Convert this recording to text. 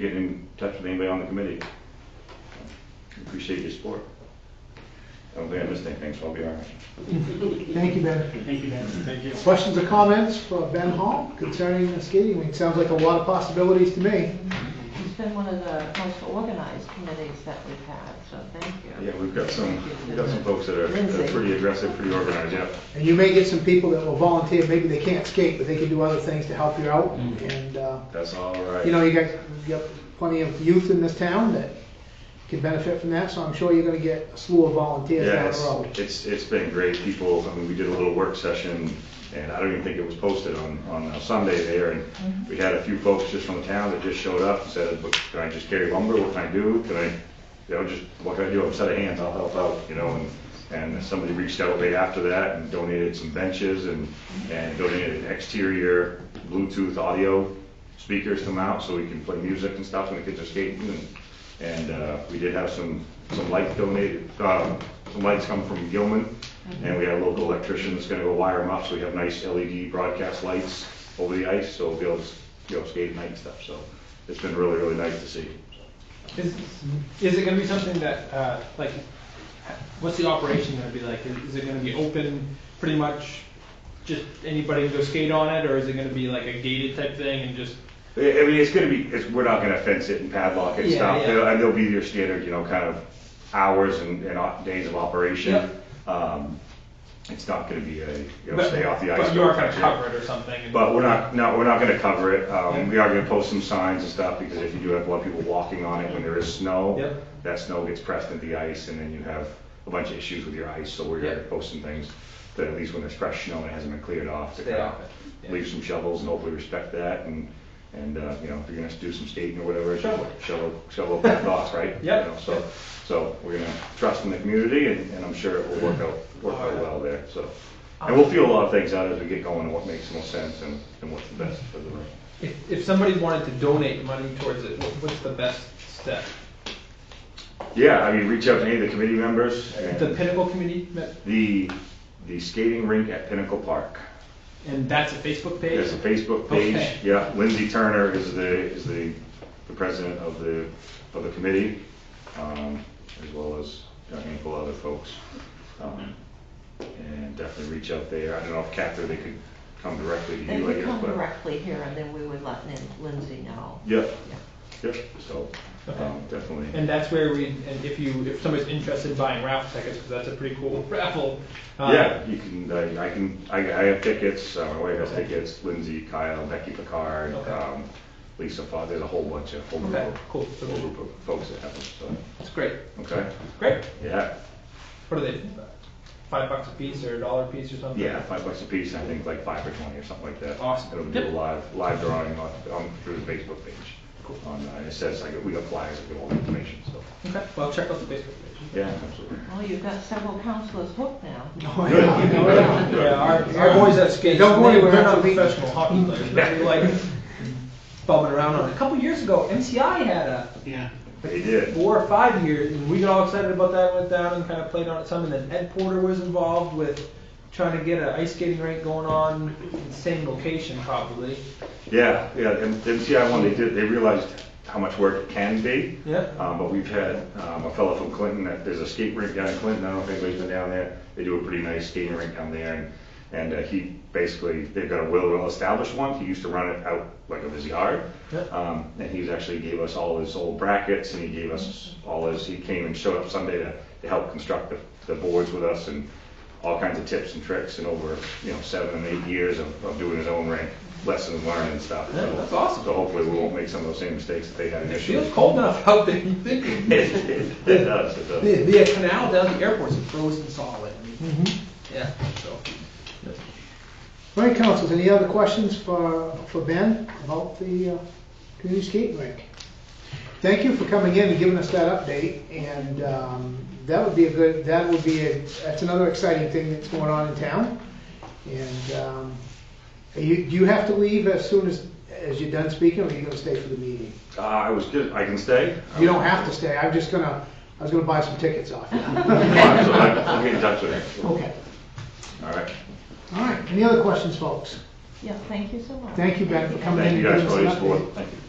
get in touch with anybody on the committee. Appreciate your support. I don't think I missed anything, so I'll be all right. Thank you, Ben. Thank you, Ben. Thank you. Questions or comments for Ben Hall concerning the skating rink? Sounds like a lot of possibilities to me. It's been one of the most organized committees that we've had, so thank you. Yeah, we've got some, we've got some folks that are that are pretty aggressive, pretty organized, yeah. And you may get some people that will volunteer, maybe they can't skate, but they can do other things to help you out. And, uh, That's all right. you know, you got, you got plenty of youth in this town that can benefit from that, so I'm sure you're gonna get a slew of volunteers Yeah, down the it's, road. it's, it's been great, people, I mean, we did a little work session, and I don't even think it was posted on, on uh, Sunday there, and we had a few folks just from the town that just showed up and said, "Look, can I just carry lumber, what can I do, can I, you know, just, what can I do, I'm a set of hands, I'll help out, you know, and, and somebody reached out way after that and donated some benches and, and donated an exterior Bluetooth audio speakers to mount, so we can play music and stuff when the kids are skating, and and uh, we did have some, some lights donated, uh, some lights come from Gilman, and we had a local electrician that's gonna go wire them up, so we have nice LED broadcast lights over the ice, so we'll be able to, you know, skate at night and stuff, so it's been really, really nice to see. Is, is it gonna be something that, uh, like, what's the operation gonna be like? Is, is it gonna be open, pretty much, just anybody can go skate on it, or is it gonna be like a gated type thing and just? I I mean, it's gonna be, it's, we're not gonna fence it and padlock it and Yeah, stuff, yeah. There'll- and there'll be your standard, you know, kind of hours and, and op- days of operation. Um, It's not gonna be a, you know, but- stay off the ice. But you are gonna type of- cover it or something? and- But we're not, no, we're not gonna cover it, um, we are gonna post some signs and stuff, because if you do have a lot of people walking on it when there is snow, Yep. that snow gets pressed into the ice, and then you have a bunch of issues with your ice, so we're gonna Yep. post some things, that at least when there's fresh snow and it hasn't been cleared off, to Stay kind off it, of yeah. leave some shovels and hopefully respect that, and, and, uh, you know, if you're gonna do some skating or whatever, shovel, Shovel. shovel, shovel that off, right? You Yep. know, So, so we're gonna trust in the community, and, and I'm sure it will work out, work out well there, so. And we'll feel a lot of things out as we get going, and what makes the most sense, and, and what's the best for the room. If, if somebody wanted to donate money towards it, what- what's the best step? Yeah, I mean, reach out to any of the committee members, and The Pinnacle Community, met- the, the skating rink at Pinnacle Park. and that's a Facebook page? There's a Facebook page, Okay. yeah, Lindsay Turner is the, is the, the president of the, of the committee, um, as well as a handful of other folks. Um, And definitely reach out there, I don't know if Catherine, they could come directly to They you, I would guess, come but. directly here and then we would let Lin- Lindsay know. Yeah, Yeah. yeah, so, um, definitely. And that's where we, and if you, if somebody's interested in buying raffle tickets, because that's a pretty cool raffle. uh, Yeah, you can, uh, I can, I, I have tickets, uh, my wife has tickets, Lindsay, Kyle, Becky Picard, Okay. um, Lisa Fox, there's a whole bunch of, whole group Okay, of, cool. So whole group of folks that have them, It's great. so, okay? Great. Yeah, What are they? Five bucks a piece or a dollar a piece or something? yeah, five bucks a piece, and I think like five or twenty or something like that. Awesome. It'll do a Yep. live, live drawing on, on, through the Facebook page. Cool. On, uh, it says, like, we got flyers with all the information, so, Okay. Well, check out the Facebook page. yeah, absolutely. Well, you've got several counselors hooked now. Oh, yeah, you know it all. Yeah, our, our boys at skate. Don't worry, we're They're not not beating- professional hockey players. They're like bumming around on it. A couple years ago, MCI had a Yeah. They did, four or five years, and we got all excited about that. Went down and kind of played on it some, and then Ed Porter was involved with trying to get an ice skating rink going on in the same location, probably. yeah, yeah, and MCI one, they did, they realized how much work it can be. Yeah. Um, but we've had, um, a fellow from Clinton, that, there's a skate rink down in Clinton, I don't know if anybody's been down there, they do a pretty nice skating rink down there, and, and, uh, he basically, they've got a well-established one, he used to run it out like of his yard. Yeah. Um, and he actually gave us all his old brackets, and he gave us all his, he came and showed up Sunday to, to help construct the, the boards with us, and all kinds of tips and tricks, and over, you know, seven, eight years of, of doing his own rink, lessons learned and stuff. Yeah, that's So- awesome. So hopefully we won't make some of those same mistakes that they had It initially. feels cold enough out there. You think It does, it does. the, the canal down at the airport's frozen solid. Mhm. Yeah. So. All right, councils, any other questions for, for Ben about the uh, community skate rink? Thank you for coming in and giving us that update, and um, that would be a good, that would be, a that's another exciting thing that's going on in town. And um, are you, do you have to leave as soon as, as you're done speaking, or are you gonna stay for the meeting? Uh, I was good, I can stay? You don't have to stay, I'm just gonna, I was gonna buy some tickets off you. Fine, so I- I'll get in touch with him. Okay, All right. all right, any other questions, folks? Yeah, thank you so much. Thank you, Ben, for coming in Thank and you giving guys us for all an your update. support. Thank you.